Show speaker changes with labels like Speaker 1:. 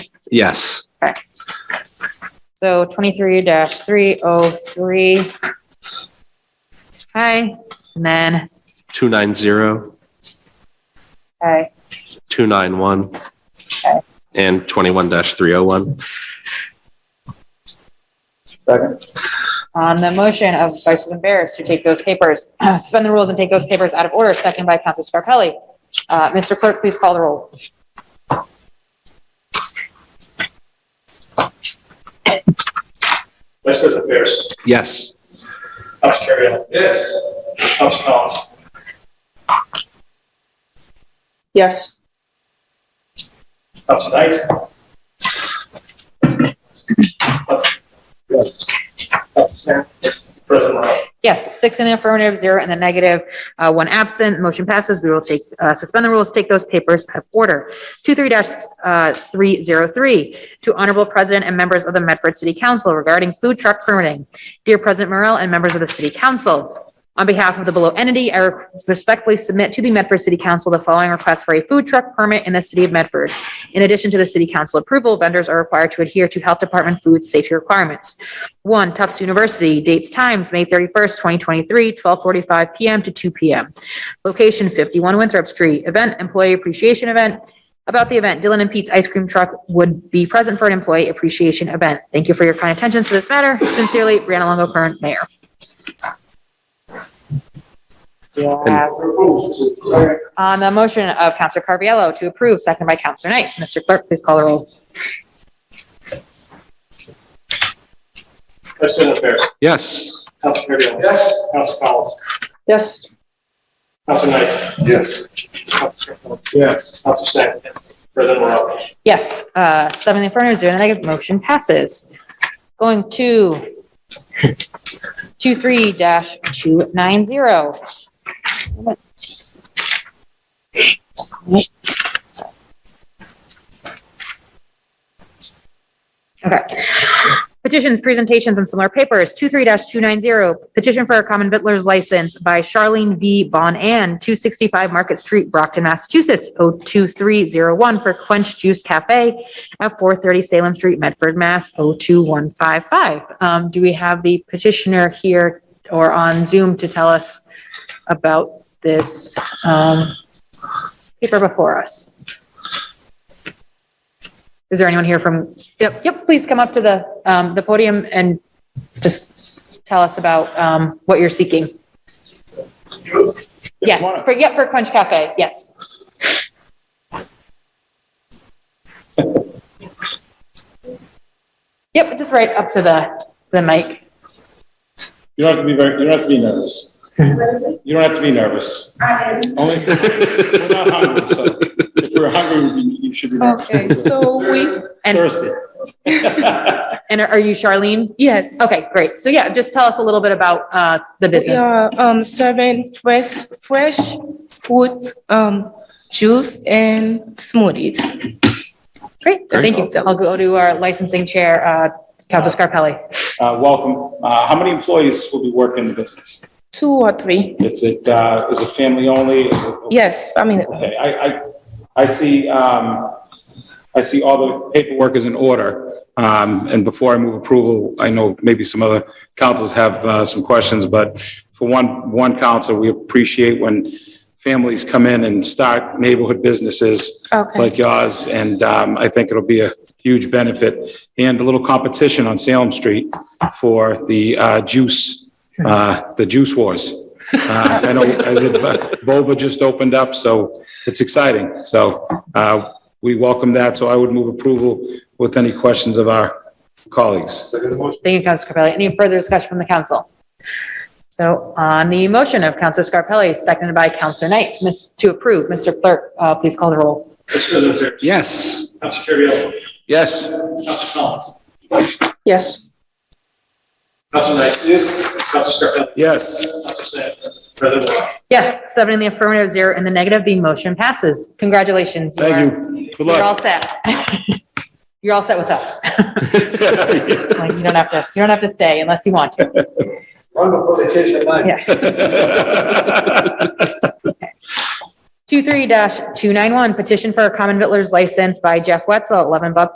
Speaker 1: Yes.
Speaker 2: So twenty-three three oh three. Okay, and then,
Speaker 1: 290,
Speaker 2: okay,
Speaker 1: 291,
Speaker 2: Okay.
Speaker 1: and 21-301.
Speaker 3: Second.
Speaker 2: on the motion of Vice President Barris to take those papers, suspend the rules and take those papers out of order, second by Council Scarpelli. Uh, Mr. Clerk, please call the roll.
Speaker 4: Vice President Pierce.
Speaker 1: Yes.
Speaker 4: Council Kerry. Yes. Council Collins.
Speaker 3: Yes.
Speaker 4: Council Knight. Yes. Council Sam. Yes. President Morrell.
Speaker 2: Yes, six in the affirmative, zero in the negative, uh, one absent. Motion passes. We will take, uh, suspend the rules, take those papers out of order. Two-three dash, uh, three-zero-three, to Honorable President and members of the Medford City Council regarding food truck permitting. Dear President Morrell and members of the City Council, on behalf of the below entity, I respectfully submit to the Medford City Council the following request for a food truck permit in the city of Medford. In addition to the City Council approval, vendors are required to adhere to Health Department food safety requirements. One, Tufts University, dates, times, May 31st, 2023, 12:45 PM to 2 PM. Location, 51 Winthrop Street. Event, employee appreciation event. About the event, Dylan and Pete's Ice Cream Truck would be present for an employee appreciation event. Thank you for your kind attention to this matter. Sincerely, Brianna Longo, current mayor.
Speaker 1: And-
Speaker 2: On the motion of Counselor Carviallo to approve, second by Counselor Knight. Mr. Clerk, please call the roll.
Speaker 4: Vice President Pierce.
Speaker 1: Yes.
Speaker 4: Council Kerry. Yes. Council Collins.
Speaker 3: Yes.
Speaker 4: Council Knight.
Speaker 5: Yes.
Speaker 4: Council Scarpelli.
Speaker 5: Yes.
Speaker 4: Council Sam. Yes. President Morrell.
Speaker 2: Yes, uh, seven in the affirmative, zero in the negative, motion passes. Going to two, three dash two nine zero. Okay. Petitions, presentations, and similar papers, two, three dash two nine zero, petition for a common vittler's license by Charlene V. Bonan, two sixty-five Market Street, Brockton, Massachusetts, oh two three zero one for Quench Juice Cafe at four thirty Salem Street, Medford, Mass, oh two one five five. Um, do we have the petitioner here or on Zoom to tell us about this, um, paper before us? Is there anyone here from, yep, yep, please come up to the, um, the podium and just tell us about, um, what you're seeking. Yes, for, yep, for Quench Cafe, yes. Yep, just right up to the, the mic.
Speaker 5: You don't have to be very, you don't have to be nervous. You don't have to be nervous. Only if we're not hungry, so if we're hungry, you- you should be nervous.
Speaker 6: Okay, so we,
Speaker 2: And,
Speaker 5: Thirsty. Uh,
Speaker 2: and are you Charlene?
Speaker 6: yes.
Speaker 2: Okay, great. So yeah, just tell us a little bit about, uh, the
Speaker 6: We
Speaker 2: business.
Speaker 6: are um, serving fresh, fresh fruit, um, juice and smoothies.
Speaker 2: Great,
Speaker 6: Great.
Speaker 2: thank you. I'll go to our licensing chair, uh, Counselor Scarpelli.
Speaker 5: Uh, welcome. Uh, how many employees will be working in the business?
Speaker 6: Two or three.
Speaker 5: It's, it, uh, is it family only? Is it?
Speaker 6: Yes, I mean,
Speaker 5: Okay, I, I, I see, um, I see all the paperwork is in order. Um, and before I move approval, I know maybe some other councils have, uh, some questions, but for one, one council, we appreciate when families come in and start neighborhood businesses
Speaker 6: okay,
Speaker 5: like yours, and, um, I think it'll be a huge benefit. And a little competition on Salem Street for the, uh, juice, uh, the juice wars. Uh, I know, as it, Boba just opened up, so it's exciting. So, uh, we welcome that, so I would move approval with any questions of our colleagues.
Speaker 2: Thank you, Counselor Scarpelli. Any further discussion from the council? So on the motion of Counselor Scarpelli, seconded by Counselor Knight, miss, to approve, Mr. Clerk, uh, please call the roll.
Speaker 4: Vice President Pierce.
Speaker 1: Yes.
Speaker 4: Council Kerry.
Speaker 1: Yes.
Speaker 4: Council Collins.
Speaker 6: yes.
Speaker 4: Council Knight. Yes. Council Scarpelli.
Speaker 5: Yes,
Speaker 4: Council Sam. Yes. President Morrell.
Speaker 2: Yes, seven in the affirmative, zero in the negative, the motion passes. Congratulations. you are-
Speaker 5: thank you. Good
Speaker 2: You're all
Speaker 5: luck.
Speaker 2: set. You're all set with us. Like, you don't have to, you don't have to stay unless you want to.
Speaker 3: Run before they change their mind.
Speaker 2: Yeah. Two-three dash two-nine-one, petition for a common vittler's license by Jeff Wetzel, eleven Buck